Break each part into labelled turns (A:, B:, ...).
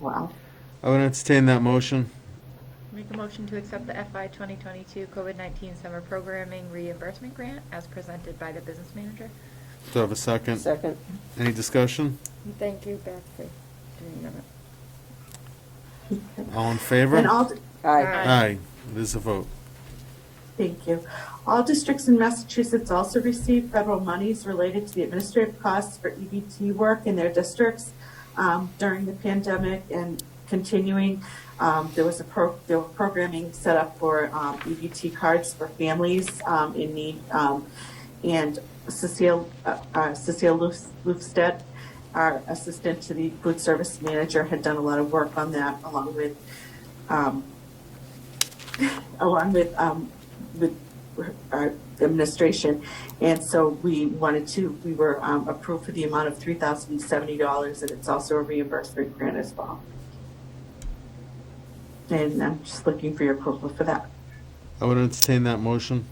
A: Wow.
B: I would entertain that motion.
C: Make a motion to accept the FI 2022 COVID-19 Summer Programming Reimbursement Grant as presented by the business manager.
B: Do I have a second?
A: Second.
B: Any discussion?
C: Thank you, Beth, for doing that.
B: All in favor?
D: And all,
A: Aye.
B: Aye, it is a vote.
D: thank you. All districts in Massachusetts also receive federal monies related to the administrative costs for EBT work in their districts um, during the pandemic and continuing. Um, There was a pro, there were programming set up for um, EBT cards for families um, in need. um, And Cecile, uh, uh, Cecile Luf- Lufstedt, our assistant to the food service manager, had done a lot of work on that along with um, along with, um, with our administration. And so we wanted to, we were, um, approved for the amount of three thousand and seventy dollars, and it's also a reimbursement grant as well. And I'm just looking for your approval for that.
B: I would entertain that motion.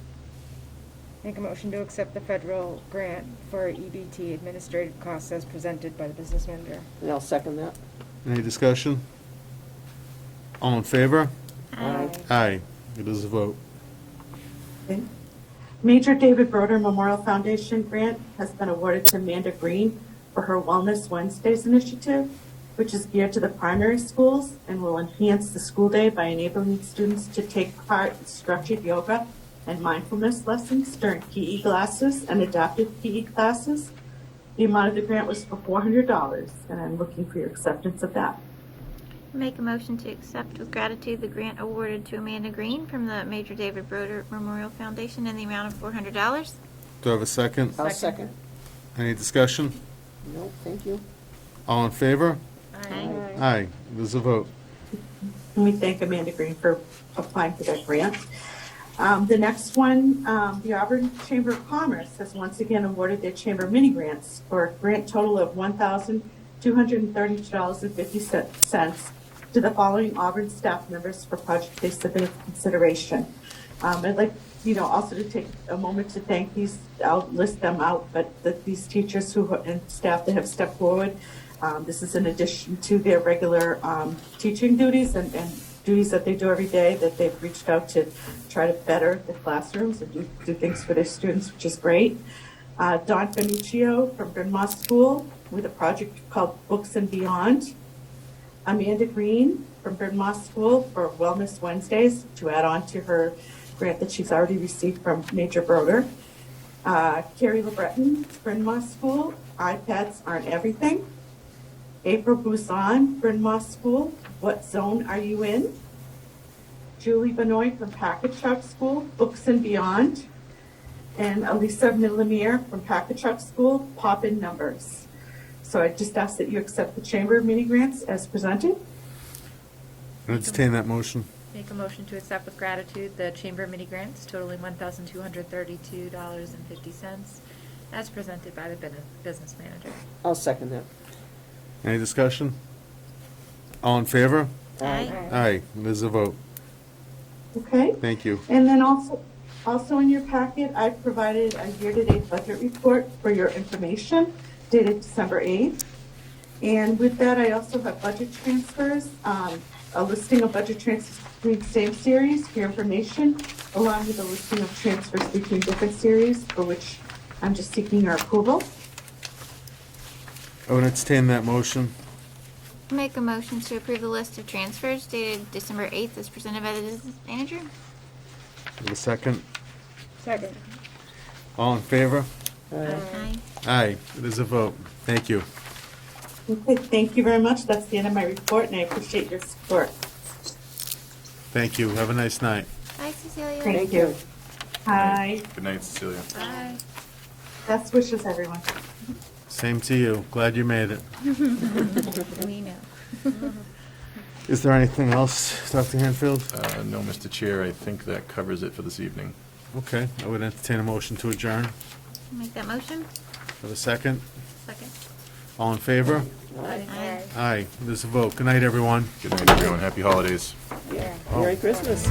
E: Make a motion to accept the federal grant for EBT administrative costs as presented by the business manager.
A: And I'll second that.
B: Any discussion? All in favor?
A: Aye.
B: Aye, it is a vote.
D: Major David Broder Memorial Foundation grant has been awarded to Amanda Green for her Wellness Wednesdays initiative, which is geared to the primary schools and will enhance the school day by enabling students to take part in structured yoga and mindfulness lessons during PE classes and adaptive PE classes. The amount of the grant was for $400, and I'm looking for your acceptance of that.
F: Make a motion to accept with gratitude the grant awarded to Amanda Green from the Major David Broder Memorial Foundation in the amount of $400.
B: Do I have a second?
A: I'll second.
B: Any discussion?
A: No, thank you.
B: All in favor?
F: Aye.
B: Aye, it is a vote.
D: And we thank Amanda Green for applying for that grant. Um, The next one, um, the Auburn Chamber of Commerce has once again awarded their chamber mini grants for a grant total of $1,232.50 to the following Auburn staff members for projects they submitted for consideration. Um, I'd like, you know, also to take a moment to thank these, I'll list them out, but that these teachers who, and staff that have stepped forward. Um, this is in addition to their regular, um, teaching duties and, and duties that they do every day, that they've reached out to try to better the classrooms and do, do things for their students, which is great. Uh, Don Benuccio from Bryn Mawr School with a project called Books and Beyond. Amanda Green from Bryn Mawr School for Wellness Wednesdays to add on to her grant that she's already received from Major Broder. Uh, Carrie LeBreton, Bryn Mawr School, iPads aren't everything. April Busan, Bryn Mawr School, what zone are you in? Julie Benoit from Packet Shop School, Books and Beyond. And Elisa Millimere from Packet Shop School, Pop in Numbers. So I just ask that you accept the Chamber of Mini Grants as presented.
B: Entertain that motion.
C: Make a motion to accept with gratitude the chamber mini grants totaling $1,232.50 as presented by the bin- business manager.
A: I'll second that.
B: Any discussion? All in favor?
F: Aye.
B: Aye, it is a vote.
D: Okay?
B: Thank you.
D: And then also, also in your packet, I provided a year-to-date budget report for your information dated December 8th. And with that, I also have budget transfers, um, a listing of budget transfers between same series for your information, along with a listing of transfers between different series for which I'm just seeking your approval.
B: I would entertain that motion.
F: Make a motion to approve the list of transfers dated December 8th as presented by the business manager.
B: Do I have a second?
E: Second.
B: All in favor?
A: Aye.
F: Aye.
B: Aye, it is a vote. Thank you.
D: Okay, thank you very much. That's the end of my report, and I appreciate your support.
B: Thank you. Have a nice night.
F: Bye, Cecilia.
D: Thank you. Hi,
G: Good night, Cecilia.
C: Aye.
D: best wishes, everyone.
B: Same to you. Glad you made it.
C: We know.
B: Is there anything else, Dr. Hanfield?
G: Uh, No, Mr. Chair, I think that covers it for this evening.
B: Uh, Okay, I would entertain a motion to adjourn.
F: Make that motion.
B: For the second,
C: Second.
B: all in favor?
F: Aye.
B: Aye, this is a vote. Good night, everyone.
G: Good night, everyone. Happy holidays.
A: Merry Christmas.